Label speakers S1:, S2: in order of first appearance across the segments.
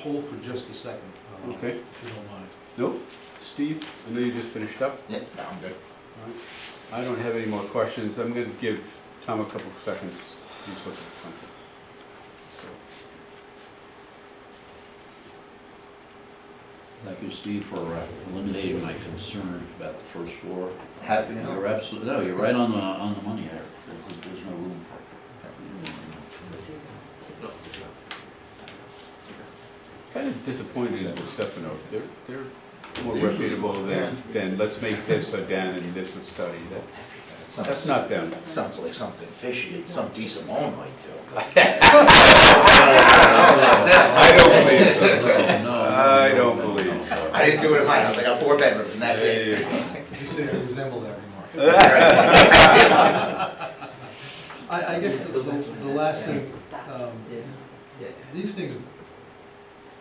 S1: hold for just a second. uh,
S2: Okay.
S1: If you don't mind.
S2: Nope. Steve, I know you just finished up.
S3: Yeah, I'm good.
S2: I don't have any more questions. I'm going to give Tom a couple of seconds. He's looking at something.
S4: Thank you, Steve, for uh, eliminating my concern about the first floor.
S3: Happy to
S4: You're
S3: help.
S4: absolutely, no, you're right on the, on the money there. There's- There's no room for it.
S2: Kind of disappointed in the Stefano. They're, they're more reputable than, than let's make this a den and this a study. That's,
S3: That sounds-
S2: that's not them.
S3: Sounds like something fishy, some decent loan might do.
S2: I don't believe so.
S4: No, no,
S2: I
S4: no,
S2: don't
S4: no, no,
S2: believe.
S4: no.
S3: I didn't do it in my house, I got four bedrooms and that's it.
S1: You say I resemble that remark.
S2: Yeah.
S1: I, I guess the, the the last thing, um, these things,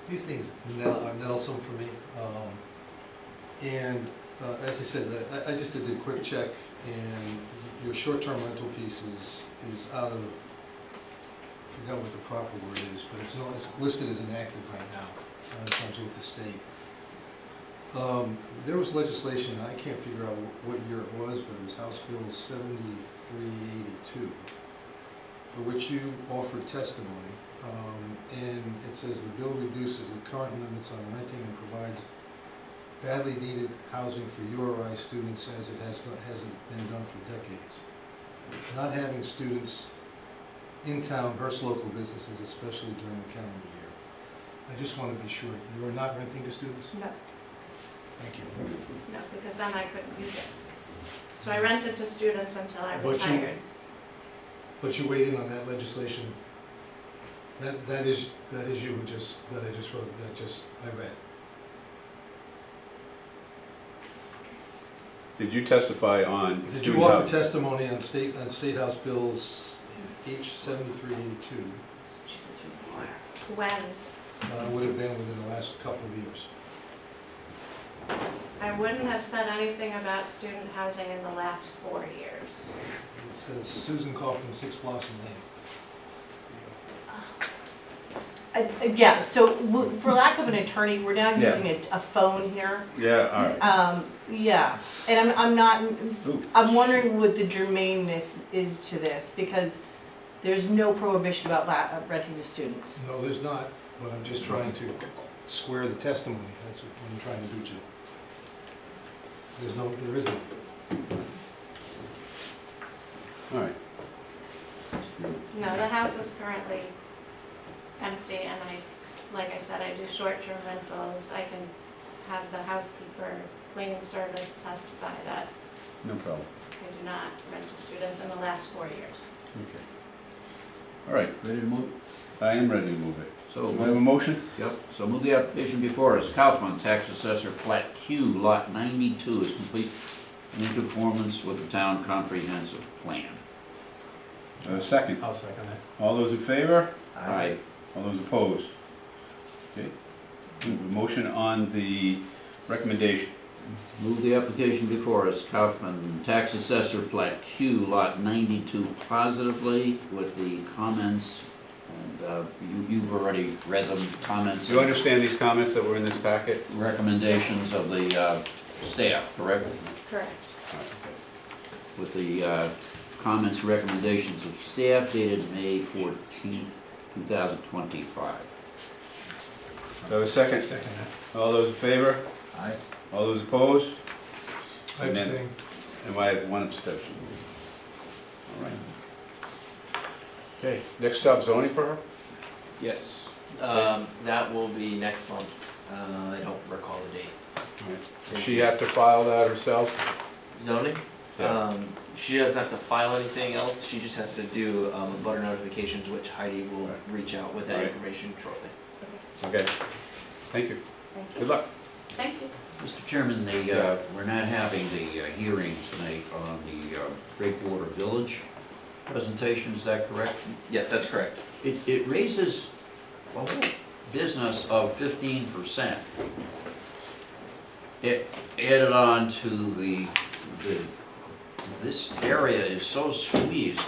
S1: these things ne- are Nelson for me. Um, And uh, as I said, I- I, I just did a quick check and your short-term rental piece is, is out of, I forgot what the proper word is, but it's not, it's listed as inactive right now, uh, in terms of the state. Um, There was legislation, I can't figure out wh- what year it was, but it was House Bill seventy-three eighty-two, for which you offered testimony. Um, And it says the bill reduces the current limits on renting and provides badly needed housing for URI students as it has, not- hasn't been done for decades. Not having students in town hurts local businesses, especially during the calendar year. I just want to be sure, you are not renting to students?
S5: No,
S1: Thank you.
S5: no, because then I couldn't use it. So I rented to students until I
S1: But you-
S5: retired.
S1: But you weighed in on that legislation. That, that is, that is you who just, that I just wrote, that just, I read.
S2: Did you testify on
S1: Did you
S2: student
S1: offer
S2: housing?
S1: testimony on state, on State House Bills H seventy-three eighty-two?
S5: When,
S1: Uh, would have been within the last couple of years.
S5: I wouldn't have said anything about student housing in the last four years.
S1: It says Susan Kaufman, Six Blossom Lane.
S6: Uh, Yeah, so w- for lack of an attorney, we're now
S2: Yeah.
S6: using a, a phone here.
S2: Yeah, all right.
S6: Um, yeah, and I'm, I'm not,
S2: Ooh.
S6: I'm wondering what the germaneness is to this, because there's no prohibition about la- of renting to students.
S1: No, there's not, but I'm just trying to square the testimony, that's what I'm trying to do, Jim. There's no, there isn't.
S2: All right.
S5: No, the house is currently empty and I, like I said, I do short-term rentals. I can have the housekeeper cleaning service testify that
S2: No problem.
S5: I do not rent to students in the last four years.
S2: Okay. All right.
S4: Ready to move?
S2: I am ready to move it.
S4: So,
S2: Do I have a
S4: move-
S2: motion?
S4: yep, so move the application before us. Kaufman, tax assessor, plat Q, lot 92 is complete in conformance with the town comprehensive plan.
S2: Uh, second.
S1: I'll second that.
S2: All those in favor?
S4: All right,
S2: All those opposed? Okay. We have a Motion on the recommendation.
S4: Move the application before us, Kaufman, tax assessor plat Q, lot 92, positively with the comments, and uh, you- you've already read them, comments,
S2: Do you understand these comments that were in this packet?
S4: recommendations of the uh, staff, correct?
S5: Correct.
S4: With the uh, comments, recommendations of staff dated May 14th, 2025.
S2: Do I have a second? Second. All those in favor?
S3: Aye.
S2: All those opposed?
S1: I
S2: Amen.
S1: abstain.
S2: And I have one abstention. All right. Okay, next up, zoning for her?
S7: Yes, um, that will be next month, uh, I don't recall the date.
S2: All right. Does she have to file that herself?
S7: Zoning,
S2: Yeah.
S7: um, she doesn't have to file anything else, she just has to do, um, butter notifications, which Heidi will
S2: Right.
S7: reach out with that
S2: Right.
S7: information shortly.
S2: Okay. Thank you.
S5: Thank you.
S2: Good luck.
S5: Thank you.
S4: Mr. Chairman, the, uh, we're not having the uh, hearing tonight on the uh, Great Water Village presentation, is that correct?
S7: Yes, that's correct.
S4: It, it raises a whole business of fifteen percent. It added on to the, the, this area is so squeezed,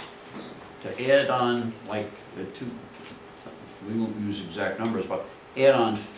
S4: to add on like the two, we won't use exact numbers, but add-on